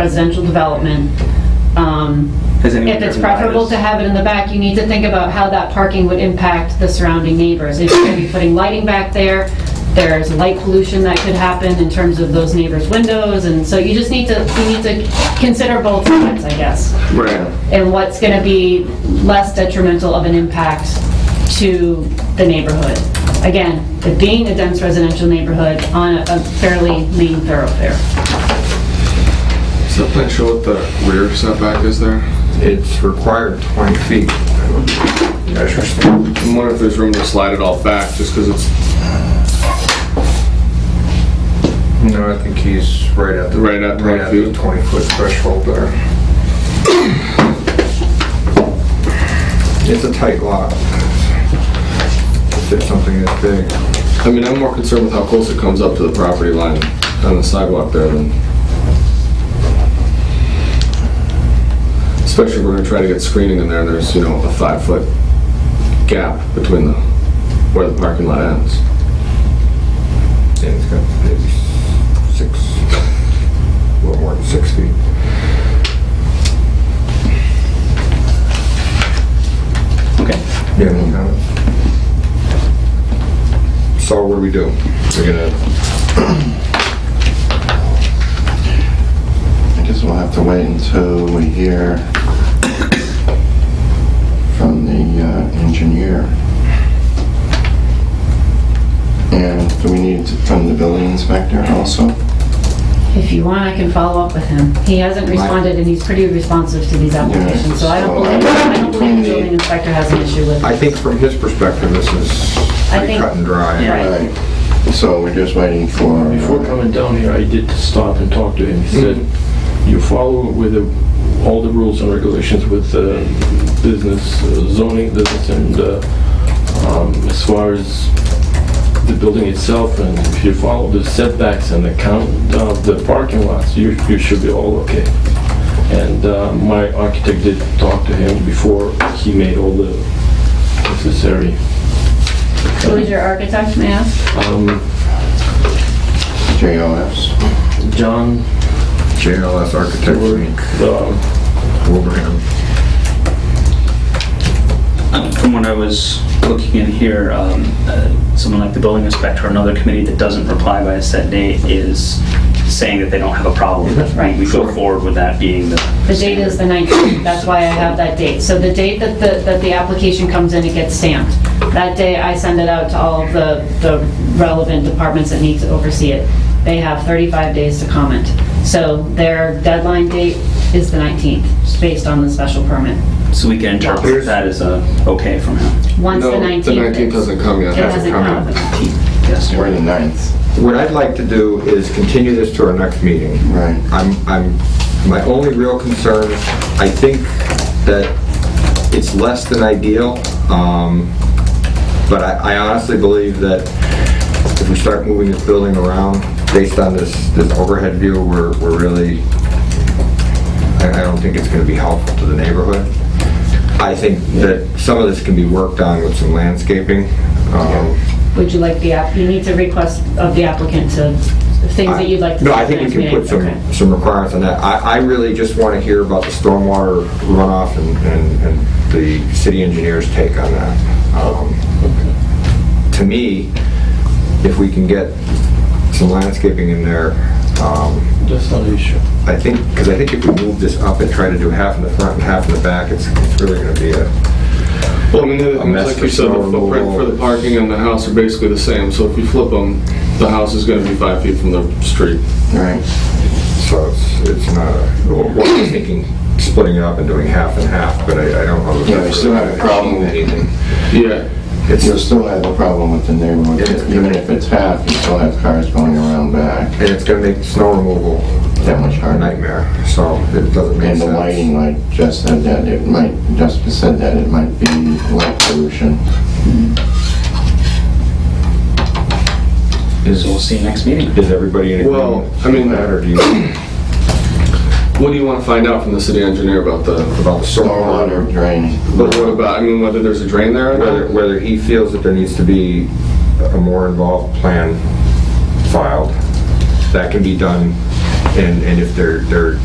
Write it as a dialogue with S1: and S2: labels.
S1: residential development. Um,
S2: Has anyone
S1: If it's
S2: driven by
S1: preferable
S2: this?
S1: to have it in the back, you need to think about how that parking would impact the surrounding neighbors. If you're going to be putting lighting back there, there's light pollution that could happen in terms of those neighbors' windows, and so you just need to, you need to consider both sides, I guess,
S2: Right.
S1: and what's going to be less detrimental of an impact to the neighborhood. Again, it being a dense residential neighborhood on a- a fairly lean thoroughfare.
S3: Does that plan show what the rear setback is there?
S4: It's required 20 feet. Interesting.
S3: I'm wondering if there's room to slide it all back, just because it's
S4: No, I think he's right at the...
S3: Right at 20
S4: the
S3: feet.
S4: 20-foot threshold there. It's a tight lot. If it's something that big.
S3: I mean, I'm more concerned with how close it comes up to the property line on the sidewalk there than... Especially if we're gonna try to get screening in there, there's, you know, a five-foot gap between the, where the parking lot ends.
S4: And it's got maybe six, a little more than six feet.
S2: Okay.
S4: Yeah, any comments? So what do we do? We're gonna,
S5: I guess we'll have to wait until we hear from the uh, engineer. And do we need to- from the building inspector also?
S1: If you want, I can follow up with him. He hasn't responded, and he's pretty responsive to these applications, so I don't believe, I don't believe the building inspector has an issue with
S4: I
S1: it.
S4: think from his perspective, this is
S1: I
S4: pretty
S1: think-
S4: cut and dry.
S2: Yeah.
S5: Right. So we're just waiting for... uh,
S6: Before coming down here, I did stop and talk to him. He said, you follow with the- all the rules and regulations with uh, business uh, zoning, business and uh, um, as far as the building itself, and if you follow the setbacks and the count of the parking lots, you you should be all okay. And uh, my architect did talk to him before he made all the necessary
S1: Who is your architect, may I ask?
S6: um,
S5: JOS.
S6: John
S4: JLS Architects,
S6: work, um,
S4: Wilbraham.
S2: Um, From what I was looking in here, um, uh, someone like the building inspector or another committee that doesn't reply by a set date is saying that they don't have a problem with it, right? We go forward with that being the...
S1: The date is the 19th, that's why I have that date. So the date that the, that the application comes in, it gets stamped. That day, I send it out to all of the, the relevant departments that need to oversee it. They have 35 days to comment. So their deadline date is the 19th, based on the special permit.
S2: So we can interpret that as a okay from him.
S1: Once the
S3: No,
S1: 19th.
S3: The 19th hasn't come yet.
S1: It hasn't come.
S2: Yes,
S5: We're the ninth.
S4: What I'd like to do is continue this to our next meeting.
S5: Right.
S4: I'm, I'm, my only real concern, I think that it's less than ideal, um, but I I honestly believe that if we start moving this building around, based on this, this overhead view, we're, we're really, I, I don't think it's gonna be helpful to the neighborhood. I think that some of this can be worked on with some landscaping, um,
S1: Would you like the, app? you need to request of the applicant to, things that you'd like to.
S4: No,
S1: see
S4: I think we
S1: next
S4: can put
S1: meeting. Okay.
S4: some, some requirements on that. I, I really just want to hear about the stormwater runoff and, and, and the city engineer's take on that. Um, To me, if we can get some landscaping in there, um,
S6: That's not an issue.
S4: I think, because I think if we move this up and try to do half in the front and half in the back, it's, it's really going to be a,
S3: Well, I mean, the
S4: A
S3: things
S4: mess
S3: like
S4: for
S3: you said, the
S4: snow
S3: footprint
S4: removal.
S3: for the parking and the house are basically the same, so if you flip them, the house is gonna be five feet from the street.
S5: Right.
S4: so it's, it's not, a- well, I was thinking splitting it up and doing half and half, but I, I don't know. if
S5: Yeah, we
S4: that's
S5: still
S4: really
S5: have a problem with-
S4: anything.
S3: Yeah,
S4: It's
S5: You'll still have a problem with the neighborhood. Even if it's half, you still have cars going around back.
S4: And it's gonna make snow removal
S5: That much
S4: a
S5: harder.
S4: nightmare, so it doesn't make sense.
S5: And the lighting, like Jess said that, it might, Jessica said that, it might be light pollution.
S4: Is,
S2: so we'll see you next meeting.
S4: is everybody in
S3: Well,
S4: agreement?
S3: I mean-
S4: with That or do you,
S3: what do you wanna find out from the city engineer about the,
S4: about the
S5: Stormwater
S4: stormwater?
S5: drain.
S3: but what about, I mean, whether there's a drain there or
S4: Whether,
S3: not?
S4: whether he feels that there needs to be a more involved plan filed, that can be done, and, and if they're, they're